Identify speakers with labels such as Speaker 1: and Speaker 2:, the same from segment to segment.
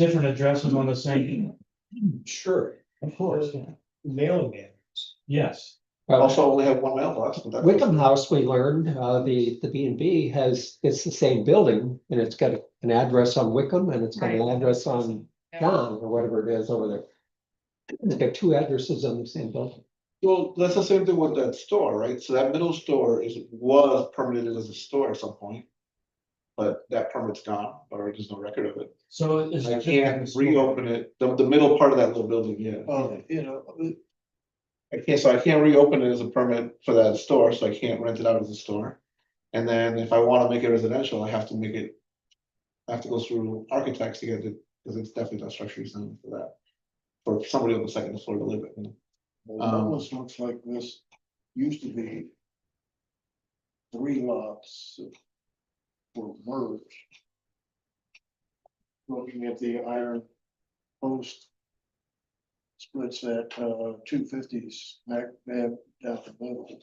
Speaker 1: different addresses on the same,
Speaker 2: Sure,
Speaker 1: of course,
Speaker 2: Uh,
Speaker 1: yeah.
Speaker 2: mailing man.
Speaker 1: yes.
Speaker 3: Also only have one mailbox. but that's-
Speaker 4: Wickham House, we learned, uh, the, the B and B has, it's the same building and it's got an address on Wickham and it's got an
Speaker 5: Right.
Speaker 4: address on
Speaker 5: Yeah.
Speaker 4: John or whatever it is over there. It's got two addresses on the same building.
Speaker 3: Well, that's the same thing with that store, right? So that middle store is, was permitted as a store at some point. But that permit's gone, or there's no record of it.
Speaker 1: So it's.
Speaker 3: I can't reopen it, the, the middle part of that little building, yeah.
Speaker 6: Uh,
Speaker 2: Well, you know,
Speaker 3: I can't, so I can't reopen it as a permit for that store, so I can't rent it out as a store. And then if I wanna make it residential, I have to make it. I have to go through architects to get it, because it's definitely not structurally sound for that. For somebody on the second floor to live in.
Speaker 6: Well, it
Speaker 3: Um,
Speaker 6: almost looks like this used to be. Three lots that were merged. Looking at the iron post. Splits that uh two fifties smack dab down the middle.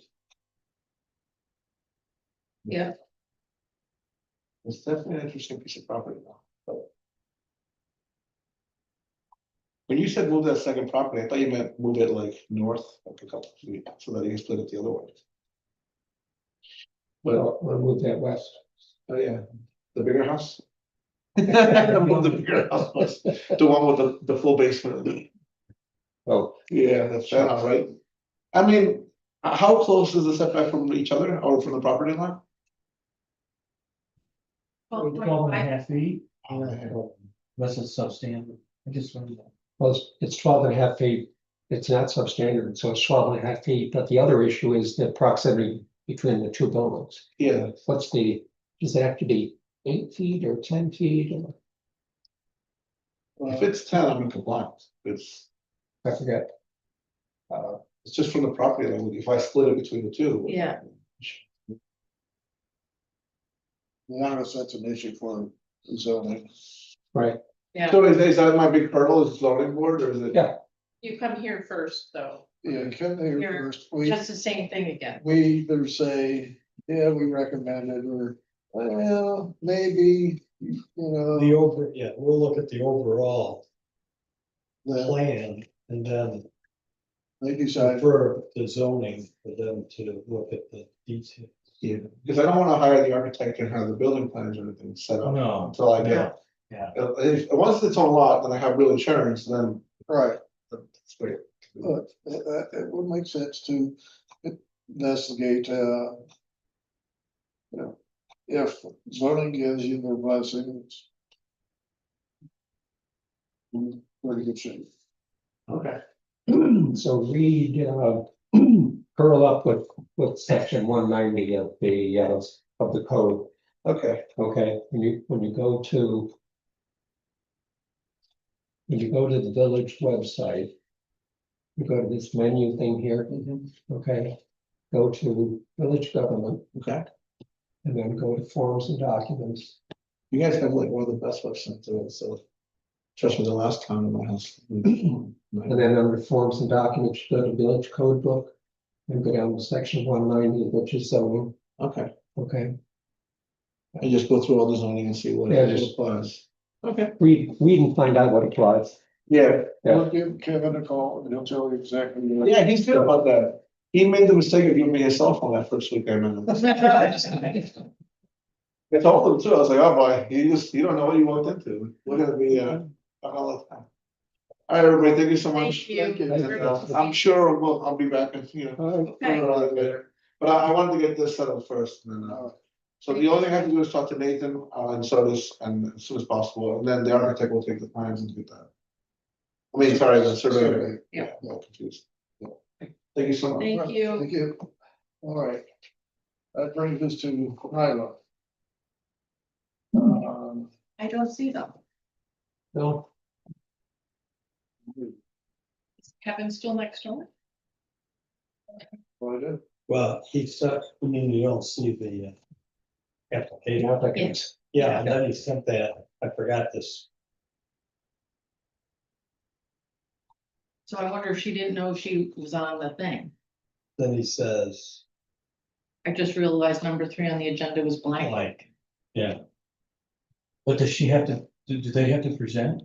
Speaker 5: Yeah,
Speaker 3: It's definitely an interesting piece of property though. but- When you said move that second property, I thought you meant move it like north, like a couple of feet, so that you can split it the other way.
Speaker 4: Well, we'll move that west.
Speaker 3: Oh, yeah, the bigger house. Move the bigger house, plus the one with the, the full basement.
Speaker 4: Oh,
Speaker 3: Yeah, that's that house, right? I mean, h- how close is the setback from each other or from the property line?
Speaker 5: well,
Speaker 1: Twelve and a
Speaker 5: I-
Speaker 1: half feet,
Speaker 3: Oh,
Speaker 1: unless it's substandard, I just wondered.
Speaker 4: well, it's- it's twelve and a half feet. It's not substandard, so it's twelve and a half feet, but the other issue is the proximity between the two buildings.
Speaker 3: Yeah,
Speaker 4: What's the, does it have to be eight feet or ten feet? or-
Speaker 3: if it's ten, I'm in compliance, it's.
Speaker 4: I forget.
Speaker 3: Uh, it's just from the property line, if I split it between the two.
Speaker 5: Yeah.
Speaker 6: None of us, that's an issue for zoning.
Speaker 4: Right,
Speaker 5: yeah,
Speaker 3: So is, is that my big hurdle, is zoning board, or is it?
Speaker 4: Yeah.
Speaker 5: you come here first, though,
Speaker 6: Yeah, come here
Speaker 5: Here,
Speaker 6: first. We-
Speaker 5: just the same thing again,
Speaker 6: we either say, yeah, we recommend it, or, well, maybe, you
Speaker 2: the
Speaker 6: know.
Speaker 2: over, yeah, we'll look at the overall
Speaker 6: that
Speaker 2: plan and then
Speaker 6: They decide,
Speaker 2: defer the zoning for them to look at the detail.
Speaker 3: Yeah, because I don't wanna hire the architect and have the building plans or anything set
Speaker 2: Oh.
Speaker 3: up
Speaker 1: No,
Speaker 3: until I
Speaker 1: Yeah,
Speaker 3: get.
Speaker 1: yeah.
Speaker 3: Uh, If, once it's on lot, then I have real insurance, then
Speaker 6: right,
Speaker 3: it's great.
Speaker 6: but it, it it would make sense to investigate, uh. You know, if zoning gives you their blessings. in Pretty good shape.
Speaker 3: Okay.
Speaker 4: so read, uh, curl up with, with section one ninety of the, uh, of the code,
Speaker 3: Okay,
Speaker 4: okay? When you, when you go to when you go to the village website, you go to this menu thing here, okay? Go to village government
Speaker 3: okay,
Speaker 4: and then go to forms and documents.
Speaker 3: you guys have like one of the best websites in it, so. Trust me, the last time in my house.
Speaker 4: And then under forms and documents, you go to village code book and go down to section one ninety, which is zoning,
Speaker 3: Okay,
Speaker 4: okay?
Speaker 3: and just go through all the zoning and see what
Speaker 4: Yeah,
Speaker 3: it
Speaker 4: just-
Speaker 3: applies. Okay.
Speaker 4: Read, read and find out what applies.
Speaker 3: Yeah,
Speaker 4: Yeah.
Speaker 6: We'll give Kevin a call and he'll tell you exactly. what-
Speaker 3: Yeah, he's good about that. He made the mistake of giving me his cell phone that first week I met him. I told him too, I was like, oh boy, you just, you don't know what you walked into. We're gonna be, uh, a hell of a time. All right, everybody, thank you so much.
Speaker 5: Thank you.
Speaker 3: And,
Speaker 4: you.
Speaker 5: Thank
Speaker 3: uh, I'm sure we'll, I'll be back, in, you know,
Speaker 4: All right,
Speaker 3: sooner
Speaker 5: okay,
Speaker 3: or later. But I, I wanted to get this settled first and then, uh, so the only thing I have to do is talk to Nathan, uh, and so this, and as soon as possible, and then the architect will take the plans and do that. I mean, sorry, the surveyor.
Speaker 6: Survey.
Speaker 5: Yeah.
Speaker 3: I'm all confused. Yeah. Thank you so much.
Speaker 5: thank you,
Speaker 6: Thank you. All right. That brings us to Nyla. Um,
Speaker 5: I don't see them,
Speaker 4: no,
Speaker 5: Is Kevin still next door?
Speaker 6: what is-
Speaker 2: Well, he said, I mean, you don't see the uh, application.
Speaker 4: applicants.
Speaker 2: Yeah, and then he sent that, I forgot this.
Speaker 5: So I wonder if she didn't know she was on the thing,
Speaker 2: Then he says,
Speaker 5: I just realized number three on the agenda was blank,
Speaker 2: like,
Speaker 1: but does she have to do, do they have to present?